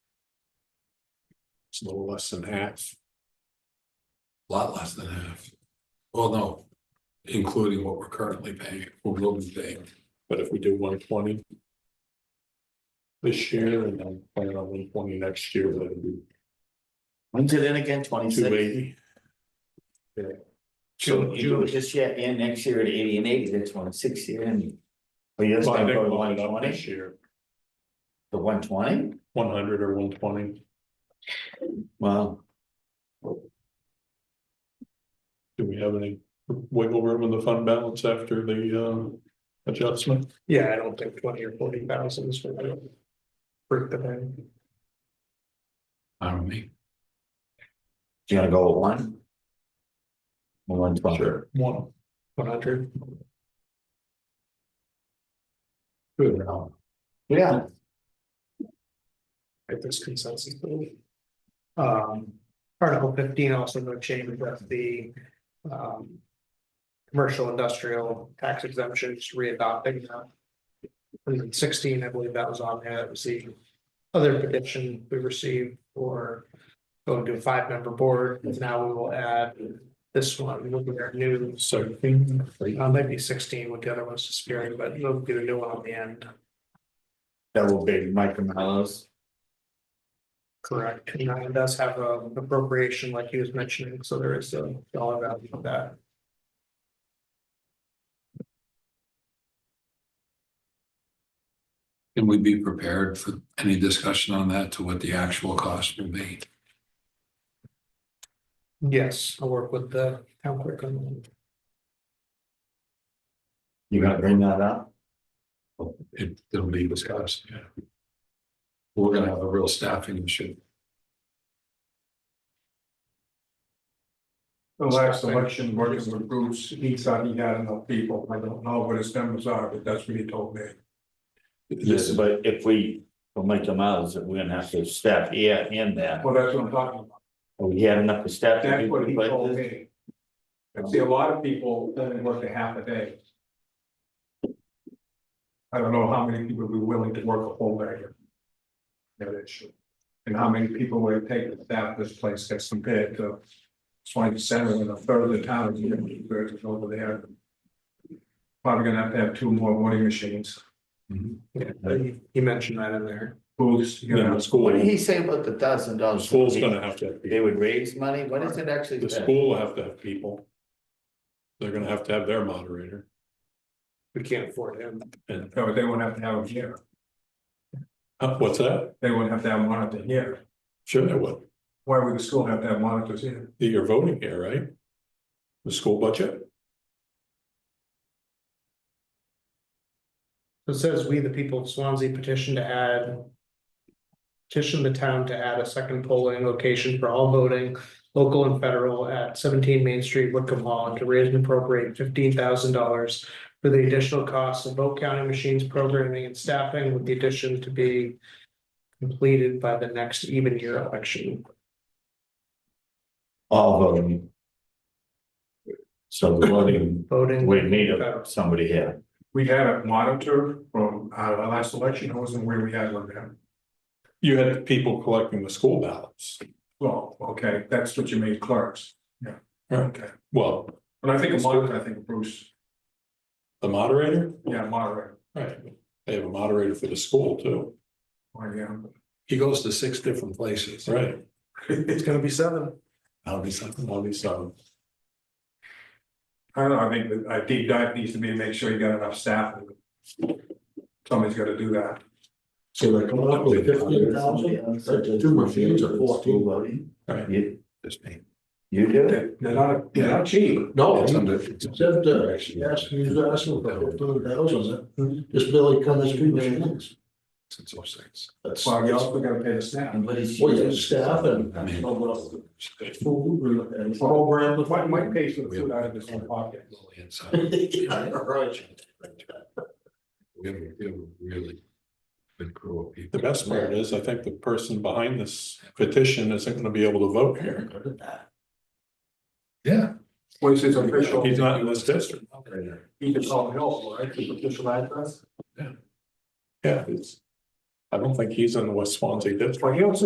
It's a little less than half. Lot less than half. Well, no, including what we're currently paying, what we'll be paying. But if we do one twenty this year and then plan on one twenty next year, that would be When's it in again, twenty two six? eighty. So you do it this year and next year at eighty and eighty, that's one six year and. But you're just Well, I gonna think go to we'll one end up twenty, this year, the one twenty, one hundred or one twenty, wow, do we have any wiggle room in the fund balance after the um adjustment? Yeah, I don't think twenty or forty thousand is gonna break the bank. I don't mean. you gonna go with one? One twenty, Sure. One. One hundred, Good. yeah. if there's consensus. Um, article fifteen also no change with the, um. Commercial industrial tax exemptions readopting that. And sixteen, I believe that was on there, that was the other petition we received for. Going to a five member board, now we will add this one, look at our new Seventeen. Uh, maybe sixteen with the other ones just disappearing, but we'll get a new one on the end, Double big Micro Mellows. correct? And uh, it does have a appropriation like he was mentioning, so there is a dollar value of that. Can we be prepared for any discussion on that to what the actual cost will be? Yes, I'll work with the town clerk on You gonna bring that up? It, it'll be discussed, yeah. We're gonna have a real staffing issue. The last election, working with Bruce, he said he had enough people, I don't know what his numbers are, but that's what he told me. Yes, but if we, for Micro Mellows, we're gonna have to step here and there. Well, that's what I'm talking about, We had enough to step. that's what he told me. I see a lot of people only work a half a day. I don't know how many people would be willing to work a whole day. That issue. And how many people would it take to staff this place that's compared to Swanton Center uh, and a third of the town, you know, versus over there. Probably gonna have to have two more voting machines. it. Yeah, he- He mentioned that in there. Booths, you know, What did school, he say about the thousand dollars? school's gonna have to, have They people. would raise money, what is it actually? the school will have to have people. They're gonna have to have their moderator We can't afford him. and, so they won't have to have them here. uh, what's that? They wouldn't have to have monitors here. Sure they would. Why would the school have to have monitors here? You're voting here, right? The school budget? It says we, the people of Swansea petition to add. Petition the town to add a second polling location for all voting, local and federal at seventeen Main Street, Wickham Hall, and to raise and appropriate fifteen thousand dollars. For the additional costs of vote counting machines, programming and staffing with the addition to be. Completed by the next even year election. All voting. So the voting, Voting. we need a- somebody here. We had a monitor from uh the last election, it wasn't where we had one then. You had people collecting the school ballots. Well, okay, that's what you made clerks. Yeah, okay. Well, But I think a monitor, I think of Bruce, the moderator? yeah, moderator, Right. They have a moderator for the school too. or Oh, yeah. He goes to six different places. Right. It's gonna be seven. That'll be something, that'll be something. I don't know, I think that a deep dive needs to be to make sure you got enough staff. Somebody's gotta do that. So they come up with fifteen thousand, uh, two machines or School fourteen. voting? Right. You, Just me. you do it? They're they're not, they're not cheap. No, It's he under- said, uh, he asked, he was asking for fifteen Hmm. thousand, this Billy Cummings three machines. Since oh six. That's, Well, you also gotta pay the staff. And what is? well, you have staff and, Oh, I mean- food and program. Well, Mike, Mike pays for the food out of his own pocket. Inside. Yeah, right. We haven't- we haven't Really. Been cruel people. The best part is, I think the person behind this petition isn't gonna be able to vote here. Look at that. Yeah. Well, it's his official, He's not in this district. he can call help, right, his official address. Yeah, it's. I don't think he's in the West Swansea district. Well, he also